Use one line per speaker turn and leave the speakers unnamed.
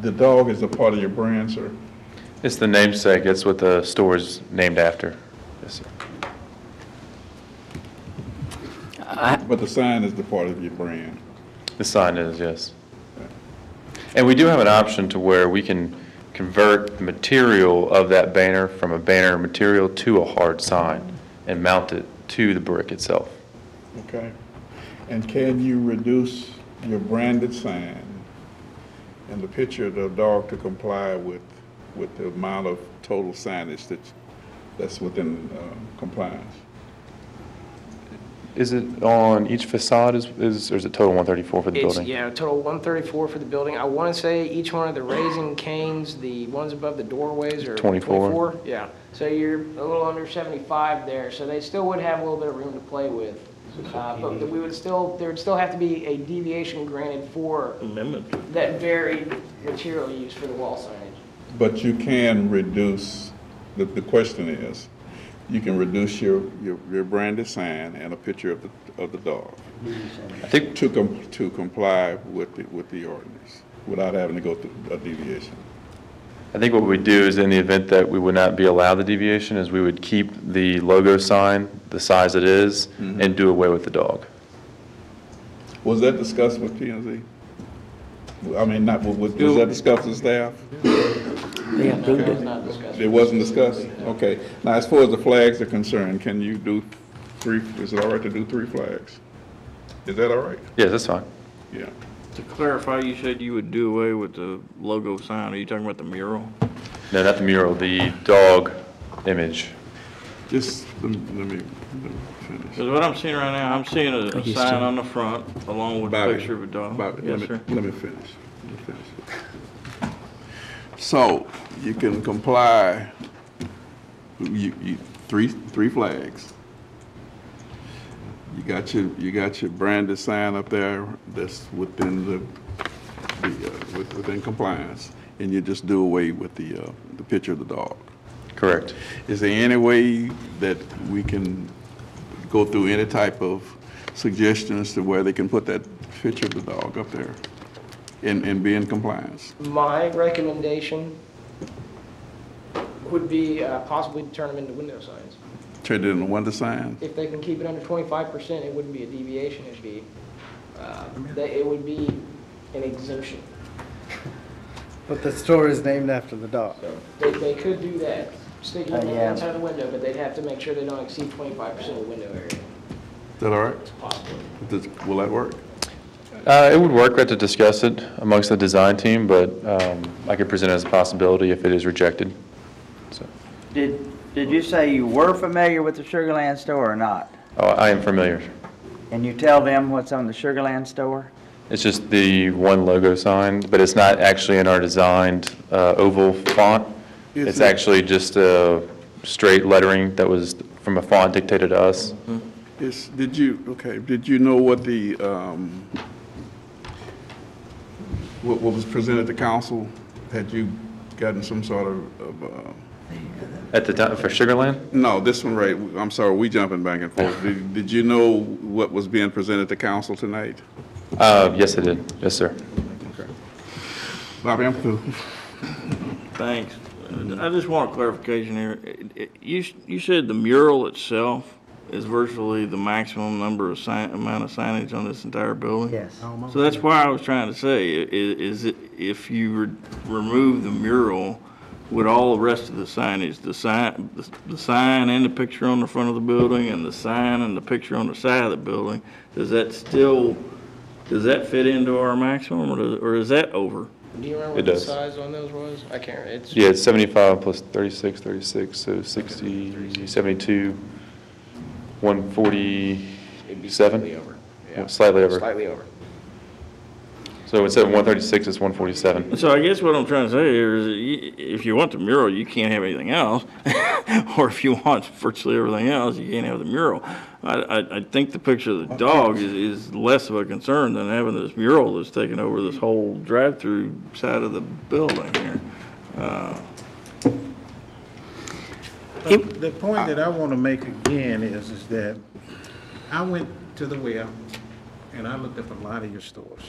the dog is a part of your brand, sir.
It's the namesake, it's what the store is named after. Yes, sir.
But the sign is the part of your brand.
The sign is, yes. And we do have an option to where we can convert the material of that banner from a banner material to a hard sign and mount it to the brick itself.
Okay. And can you reduce your branded sign and the picture of the dog to comply with, with the amount of total signage that's, that's within um, compliance?
Is it on each facade is, is, or is it total 134 for the
It's,
building?
yeah, total 134 for the building. I want to say each one of the raising canes, the ones above the doorways are
24.
24. Yeah, so you're a little under 75 there, so they still would have a little bit of room to play with. Uh, But we would still, there would still have to be a deviation granted for
amendment.
that varied material used for the wall signage.
But you can reduce, the, the question is, you can reduce your, your, your branded sign and a picture of the, of the dog
I think,
to com, to comply with the, with the ordinance without having to go through a deviation.
I think what we do is in the event that we would not be allowed the deviation is we would keep the logo sign the size it is
Mm-hmm.
and do away with the dog.
Was that discussed with P and Z? I mean, not, was, was that discussed with staff?
They approved
It's
it.
not discussed.
It wasn't discussed? Okay. Now, as far as the flags are concerned, can you do three, is it all right to do three flags? Is that all right?
Yes, that's fine.
Yeah.
To clarify, you said you would do away with the logo sign. Are you talking about the mural?
No, not the mural, the dog image.
Just, let me- let me let me finish.
Because what I'm seeing right now, I'm seeing a a
he's
sign
still-
on the front along with a
Bobby,
picture of a dog.
Bobby, let
Yes,
me,
sir.
let me finish. Let me finish. So you can comply, you, you, three, three flags. You got your, you got your branded sign up there that's within the, the, uh, with- within compliance. And you just do away with the, uh, the picture of the dog.
Correct.
Is there any way that we can go through any type of suggestions to where they can put that picture of the dog up there and, and be in compliance?
My recommendation would be uh, possibly to turn them into window signs.
Turn it into window sign?
if they can keep it under twenty-five percent, it wouldn't be a deviation, it'd be, uh, that it would be an exemption.
But the store is named after the dog.
They, they could do that, stick it
Uh,
on the
yeah.
outside the window, but they'd have to make sure they don't exceed twenty-five percent of the window area.
Is that all right? Does- Will that work?
Uh, It would work, we have to discuss it amongst the design team, but um, I could present it as a possibility if it is rejected. So,
Did, did you say you were familiar with the Sugar Land store or not?
oh, I am familiar.
And you tell them what's on the Sugar Land store?
It's just the one logo sign, but it's not actually in our designed uh, oval font.
Yes,
It's
it-
actually just a straight lettering that was from a font dictated to us.
Mm-hmm. Is, did you, okay, did you know what the, um, what, what was presented to council? Had you gotten some sort of, of, uh,
At the time, for Sugar Land?
no, this one right, I'm sorry, we jumping back and forth. Did, did you know what was being presented to council tonight?
Uh, Yes, it did. Yes, sir.
Bobby, I'm through.
Thanks. I just want clarification here. It- it- You, s- you said the mural itself is virtually the maximum number of sign, amount of signage on this entire building?
Yes.
So that's why I was trying to say, i- i- is it, if you re- remove the mural, would all the rest of the signage, the sign, the- the sign and the picture on the front of the building, and the sign and the picture on the side of the building, does that still, does that fit into our maximum, or does, or is that over?
Do you remember
It
what the
does.
size on those was? I can't, it's,
Yeah, it's 75 plus 36, 36, so 60, 72, 147? Slightly over. Slightly over.
slightly over.
So instead of 136, it's 147.
So I guess what I'm trying to say here is, that you- if you want the mural, you can't have anything else, or if you want virtually everything else, you can't have the mural. I, I, I think the picture of the dog is, is less of a concern than having this mural that's taking over this whole drive-through side of the building here.
But The point that I want to make again is, is that I went to the well and I looked up a lot of your stores.